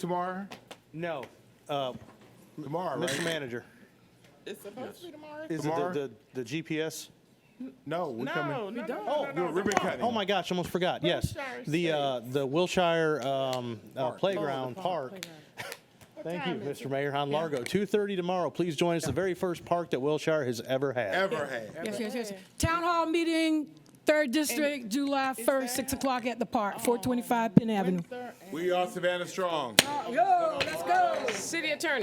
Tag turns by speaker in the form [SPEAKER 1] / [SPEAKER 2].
[SPEAKER 1] tomorrow?
[SPEAKER 2] No, uh,
[SPEAKER 1] Tomorrow, right?
[SPEAKER 2] Mr. Manager,
[SPEAKER 3] It's supposed to be tomorrow.
[SPEAKER 2] is it
[SPEAKER 1] Tomorrow?
[SPEAKER 2] the, the, the GPS?
[SPEAKER 1] No, we're
[SPEAKER 3] No,
[SPEAKER 1] coming.
[SPEAKER 3] no, no,
[SPEAKER 2] Oh,
[SPEAKER 3] no, no,
[SPEAKER 1] We're ribbon
[SPEAKER 3] tomorrow.
[SPEAKER 1] cutting.
[SPEAKER 2] Oh my gosh, almost forgot, yes.
[SPEAKER 3] Wilshire
[SPEAKER 2] The, uh, the Wilshire, um, uh, Playground Park.
[SPEAKER 3] What
[SPEAKER 2] Thank you,
[SPEAKER 3] time is
[SPEAKER 2] Mr.
[SPEAKER 3] it?
[SPEAKER 2] Mayor, on Largo, two thirty tomorrow, please join us, the very first park that Wilshire has ever had.
[SPEAKER 1] Ever had.
[SPEAKER 4] Yes, yes, yes. Town hall meeting, third district, July first, six o'clock at the park, four twenty-five Penn Avenue.
[SPEAKER 1] We are Savannah Strong.
[SPEAKER 4] Yo, let's go.
[SPEAKER 3] City attorney.